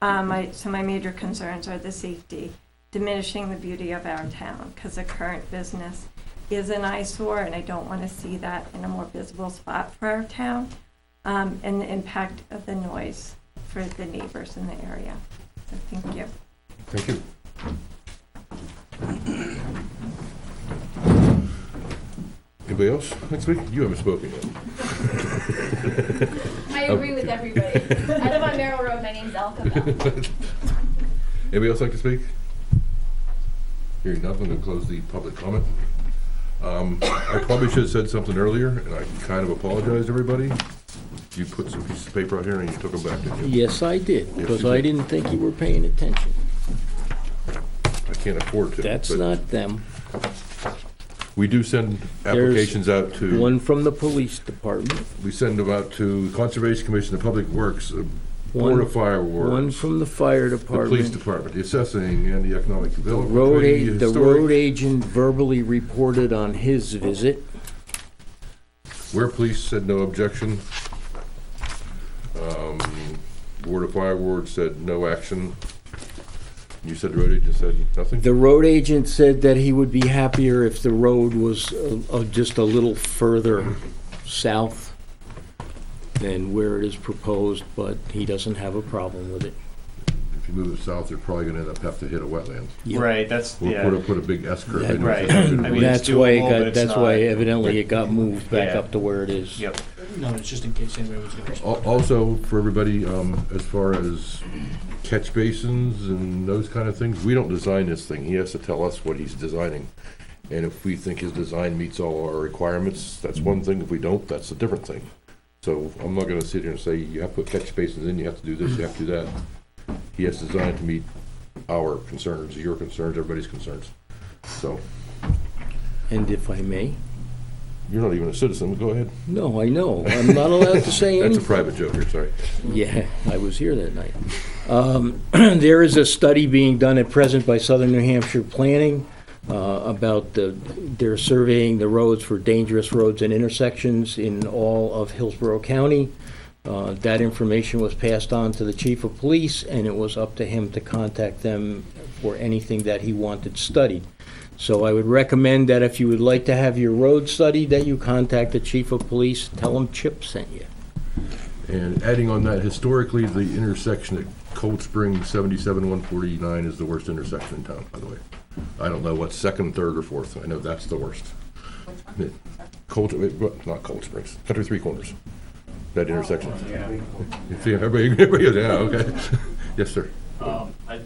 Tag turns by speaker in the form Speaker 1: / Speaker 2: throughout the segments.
Speaker 1: Uh, my, so my major concerns are the safety, diminishing the beauty of our town, because the current business is an eyesore, and I don't want to see that in a more visible spot for our town, um, and the impact of the noise for the neighbors in the area. So thank you.
Speaker 2: Thank you. Anybody else next week? You haven't spoken yet.
Speaker 3: I agree with everybody. I live on Merrill Road. My name's Alka.
Speaker 2: Anybody else like to speak? Hearing none, I'm gonna close the public comment. Um, I probably should have said something earlier, and I kind of apologize to everybody. You put some pieces of paper out here and you took them back, didn't you?
Speaker 4: Yes, I did,
Speaker 2: Yes,
Speaker 4: because
Speaker 2: you
Speaker 4: I
Speaker 2: did.
Speaker 4: didn't think you were paying attention.
Speaker 2: I can't afford to.
Speaker 4: That's
Speaker 2: but
Speaker 4: not them.
Speaker 2: We do send applications out to.
Speaker 4: One from the police department,
Speaker 2: We send them out to Conservation Commission, the Public Works, uh, Board
Speaker 4: One-
Speaker 2: of Fire
Speaker 4: one
Speaker 2: Works,
Speaker 4: from the fire
Speaker 2: the Police
Speaker 4: department.
Speaker 2: Department, the Assessing and the Economic Development.
Speaker 4: Road
Speaker 2: Committee,
Speaker 4: a, the
Speaker 2: Historic.
Speaker 4: road agent verbally reported on his visit.
Speaker 2: Where police said no objection. Um, Board of Fire Ward said no action. You said road agent said nothing?
Speaker 4: The road agent said that he would be happier if the road was uh, uh, just a little further south than where it is proposed, but he doesn't have a problem with it.
Speaker 2: If you move it south, they're probably gonna end up have to hit a wetland.
Speaker 4: Yeah.
Speaker 5: Right, that's,
Speaker 2: Or put a,
Speaker 5: yeah,
Speaker 2: put a big S curve
Speaker 4: That-
Speaker 2: in.
Speaker 5: right. I mean, it's
Speaker 4: That's why it
Speaker 5: doable, but
Speaker 4: got,
Speaker 5: it's
Speaker 4: that's
Speaker 5: not-
Speaker 4: why evidently it got moved back
Speaker 5: Yeah.
Speaker 4: up to where it is.
Speaker 5: Yep,
Speaker 6: No, it's just in case anybody was gonna.
Speaker 2: Al- Also, for everybody, um, as far as catch basins and those kind of things, we don't design this thing. He has to tell us what he's designing. And if we think his design meets all our requirements, that's one thing. If we don't, that's a different thing. So I'm not gonna sit here and say, you have to put catch basins in, you have to do this, you have to do that. He has to design it to meet our concerns, your concerns, everybody's concerns. So,
Speaker 4: And if I may,
Speaker 2: you're not even a citizen, go ahead.
Speaker 4: no, I know, I'm not allowed to say
Speaker 2: That's a
Speaker 4: anything.
Speaker 2: private joke, here, sorry.
Speaker 4: Yeah, I was here that night. Um, There is a study being done at present by Southern New Hampshire Planning uh, about the, they're surveying the roads for dangerous roads and intersections in all of Hillsborough County. Uh, That information was passed on to the chief of police, and it was up to him to contact them for anything that he wanted studied. So I would recommend that if you would like to have your road studied, that you contact the chief of police, tell him Chip sent you.
Speaker 2: And adding on that, historically, the intersection at Cold Spring, seventy-seven, one forty-nine is the worst intersection in town, by the way. I don't know what's second, third, or fourth, I know that's the worst. It- Cold, wait, what? not Cold Springs, Country Three Corners, that intersection. See, everybody, everybody goes, yeah, okay. Yes, sir.
Speaker 7: Um, I,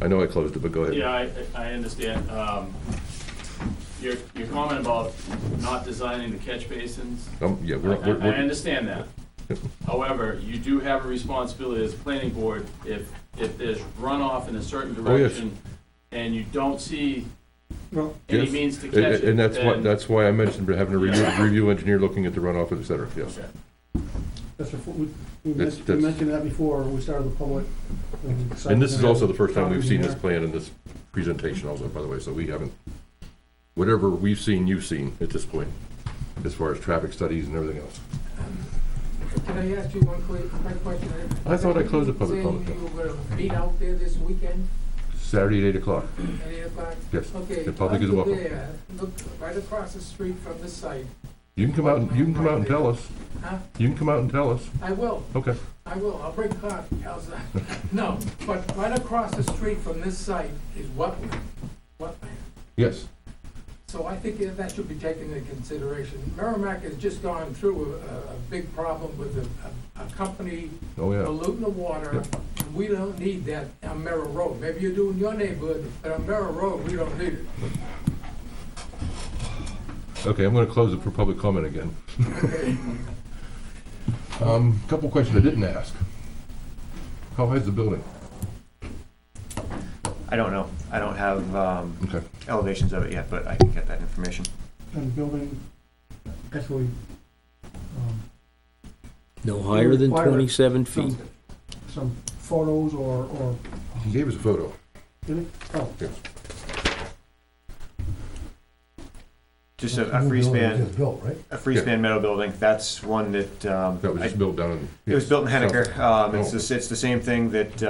Speaker 2: I know I closed it, but go ahead.
Speaker 7: yeah, I, I understand, um, your, your comment about not designing the catch basins.
Speaker 2: Um, yeah,
Speaker 7: I,
Speaker 2: we're,
Speaker 7: I
Speaker 2: we're,
Speaker 7: I
Speaker 2: we're-
Speaker 7: understand that. However, you do have a responsibility as planning board, if, if there's runoff in a certain
Speaker 2: Oh, yes.
Speaker 7: direction and you don't see
Speaker 6: Well-
Speaker 7: any
Speaker 2: Yes.
Speaker 7: means to
Speaker 2: and,
Speaker 7: catch it,
Speaker 2: and that's why,
Speaker 7: then-
Speaker 2: that's why I mentioned having a review, review engineer looking at the runoff, et cetera, yes.
Speaker 6: That's before, we, we
Speaker 2: That's-
Speaker 6: mentioned we
Speaker 2: that's-
Speaker 6: mentioned that before, we started the public. um,
Speaker 2: And this is also the first time we've seen this
Speaker 6: Yeah.
Speaker 2: plan in this presentation also, by the way, so we haven't, whatever we've seen, you've seen at this point, as far as traffic studies and everything else.
Speaker 8: Can I ask you one quick, quick question?
Speaker 2: I thought I closed the public comment.
Speaker 8: Saying you were beat out there this weekend
Speaker 2: Saturday at eight o'clock.
Speaker 8: at eight o'clock?
Speaker 2: Yes,
Speaker 8: Okay.
Speaker 2: the public is
Speaker 8: up
Speaker 2: welcome.
Speaker 8: there, Look right across the street from the site.
Speaker 2: You can come out, and you can come out and tell us.
Speaker 8: Huh?
Speaker 2: You can come out and tell us.
Speaker 8: I will,
Speaker 2: Okay.
Speaker 8: I will, I'll bring coffee, how's that? No, but right across the street from this site is wetland, wetland.
Speaker 2: Yes.
Speaker 8: So I think that should be taken into consideration. Merrimack has just gone through a, a big problem with a, a a company
Speaker 2: Oh, yeah.
Speaker 8: polluting the water. and We don't need that on Merrill Road. Maybe you do in your neighborhood, but on Merrill Road, we don't need it.
Speaker 2: Okay, I'm gonna close it for public comment again. Um, couple questions I didn't ask. How high is the building?
Speaker 5: I don't know, I don't have, um,
Speaker 2: Okay.
Speaker 5: elevations of it yet, but I can get that information.
Speaker 6: And the building, actually, um,
Speaker 4: No higher than
Speaker 6: Require it.
Speaker 4: 27 feet.
Speaker 6: some, some photos or, or,
Speaker 2: He gave us a photo.
Speaker 6: oh,
Speaker 2: Yes.
Speaker 5: Just a, a free span, a free
Speaker 2: Yeah.
Speaker 5: span metal building, that's one that, um,
Speaker 2: That was
Speaker 5: I-
Speaker 2: just built down in.
Speaker 5: it was built in
Speaker 2: South-
Speaker 5: Hennecker, um, it's
Speaker 2: Oh.
Speaker 5: the, it's the same thing that,